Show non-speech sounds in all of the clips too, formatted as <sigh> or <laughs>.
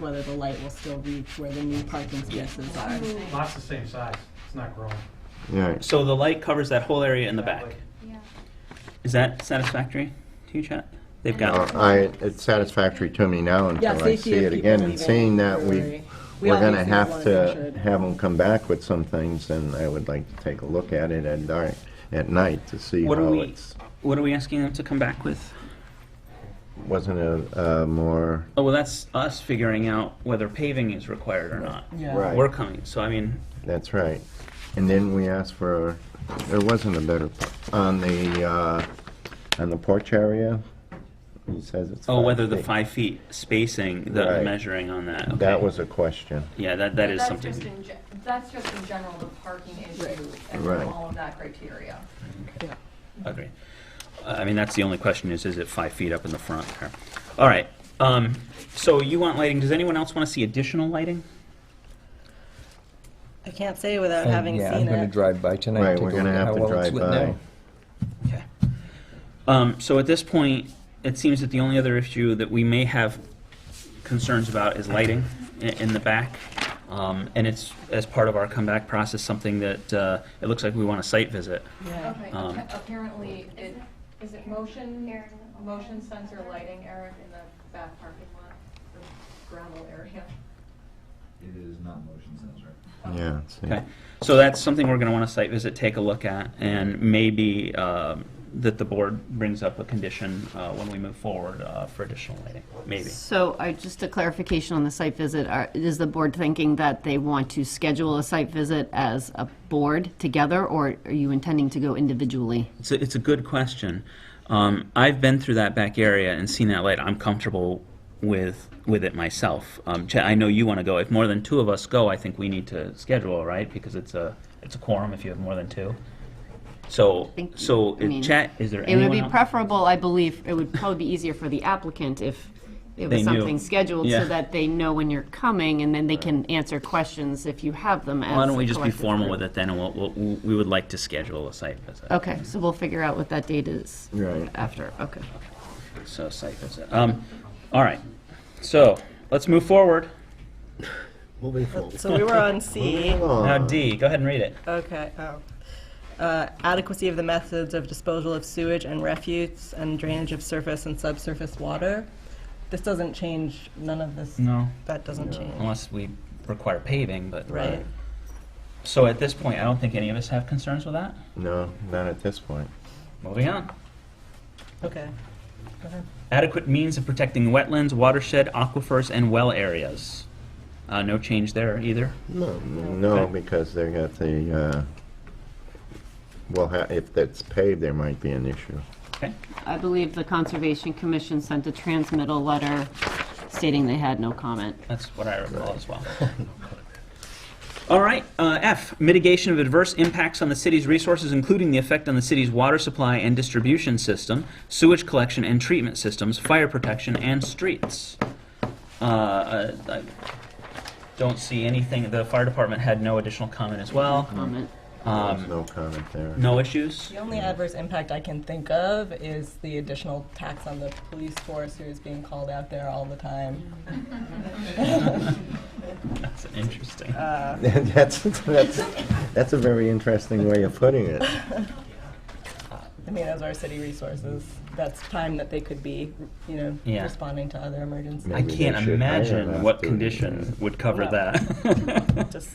whether the light will still reach where the new parking spaces are. Oh. Lot's the same size, it's not growing. Alright, So the light covers that whole area in the back. Exactly. Yeah. Is that satisfactory to you, Chad? They've got, Uh, I, it's satisfactory to me now Yeah, until Oh, I safety see of it people again, and leaving seeing that for we, delivery. We we're gonna obviously have wanna to make sure have them come back with some things, and I would like to take a look at it at dark, at night, to see What do how we- it's, what are we asking them to come back with? wasn't it, uh, more, Oh, well, that's us figuring out whether paving is required or not. Yeah. Right. We're coming, so I mean, that's right. And then we asked for, there wasn't a better, p- on the, uh, on the porch area, he says it's. oh, five whether the feet. five feet spacing, the Right. measuring on that. That okay. was a question. Yeah, that, But that is that's something. just in ge- That's just in general, the parking Right. issue and Right. all of that criteria. Yeah. Agree. I mean, that's the only question is, is it five feet up in the front there? All right, um, so you want lighting, does anyone else want to see additional lighting? I can't say without Uh, And, having yeah, seen I'm going to it. drive by tonight. Right, and take we're a gonna look at have how to well it's drive lit by. now. Okay. Um, so at this point, it seems that the only other issue that we may have concerns about is lighting i- in the back. Um, and it's, as part of our comeback process, something that, uh, it looks like we want a site visit. Yeah. Okay, Um, appa- apparently, it, Uh, is it motion, motion sensor lighting, Eric, in the back parking lot, the gravel area? It is not motion sensor. Yeah. see. Okay, so that's something we're gonna want to site visit, take a look at, and maybe um, that the board brings up a condition uh, when we move forward uh, for additional lighting, maybe. So, uh, just a clarification on the site visit, Are- is the board thinking that they want to schedule a site visit as a board together, or are you intending to go individually? It's a, it's a good question. Um, I've been through that back area and seen that light. I'm comfortable with, with it myself. Um, Chad, I know you want to go. If more than two of us go, I think we need to schedule, right? Because it's a, it's a quorum if you have more than two. So, Think- so, I mean, Chad, is there It anyone would be else? preferable, I believe, it would probably be easier for the applicant if it They was knew. something scheduled, Yeah. so that they know when you're coming, and then they can answer questions if you have them as. Why don't we a just be collective formal group. with it then, and we'll, we'll, we would like to schedule a site visit. Okay, so we'll figure out what that date is. Right. After, okay. So site visit. Um, all right. So let's move forward. Moving forward. So we were <laughs> on C. Now Oh. D, go ahead and read it. Okay, oh. Uh, adequacy of the methods of disposal of sewage and refuse and drainage of surface and subsurface water. This doesn't change, none of this, No. that doesn't change. Unless we require paving, but. uh, Right. So at this point, I don't think any of us have concerns with that. No, not at this point. Moving on. Okay. Go ahead. Adequate means of protecting wetlands, watershed, aquifers, and well areas. Uh, no change there either. No, no, Okay. because they got the, uh, well, ha- if that's paved, there might be an issue. Okay. I believe the Conservation Commission sent a transmittal letter stating they had no comment. That's what I recall as well. <laughs> All right, uh, F, mitigation of adverse impacts on the city's resources, including the effect on the city's water supply and distribution system, sewage collection and treatment systems, fire protection, and streets. Uh, I I don't see anything, the fire department had no additional comment as well. Comment. There's Um, no comment there. No issues? The only adverse impact I can think of is the additional tax on the police force who is being called out there all the time. That's interesting. <laughs> That's, that's, that's a very interesting way of putting it. I mean, those are city resources. That's time that they could be, you know, Yeah. responding to other emergencies. I Maybe they can't should hire uh, imagine us what to- condition would cover No. that. <laughs> Just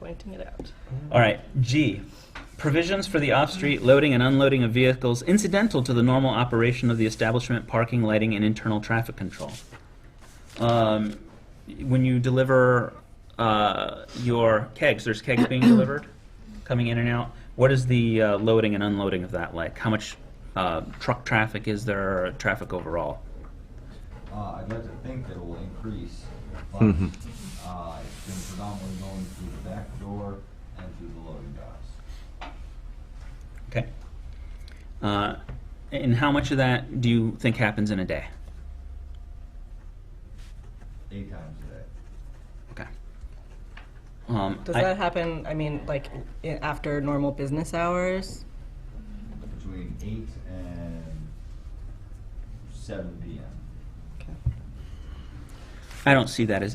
pointing it out. All right, G, provisions for the off-street loading and unloading of vehicles incidental to the normal operation of the establishment, parking, lighting, and internal traffic control. Um, When you deliver uh, your kegs, there's kegs <clears throat> being delivered, coming in and out. What is the uh, loading and unloading of that like? How much uh, truck traffic is there, or traffic overall? Uh, I'd like to think that it will increase, but, uh, it's been predominantly going through the back door and through the loading docks. Okay. Uh, And how much of that do you think happens in a day? Eight times a day. Okay. Um, Does I- that happen, I mean, like i- after normal business hours? Between eight and seven PM. Okay. I don't see that as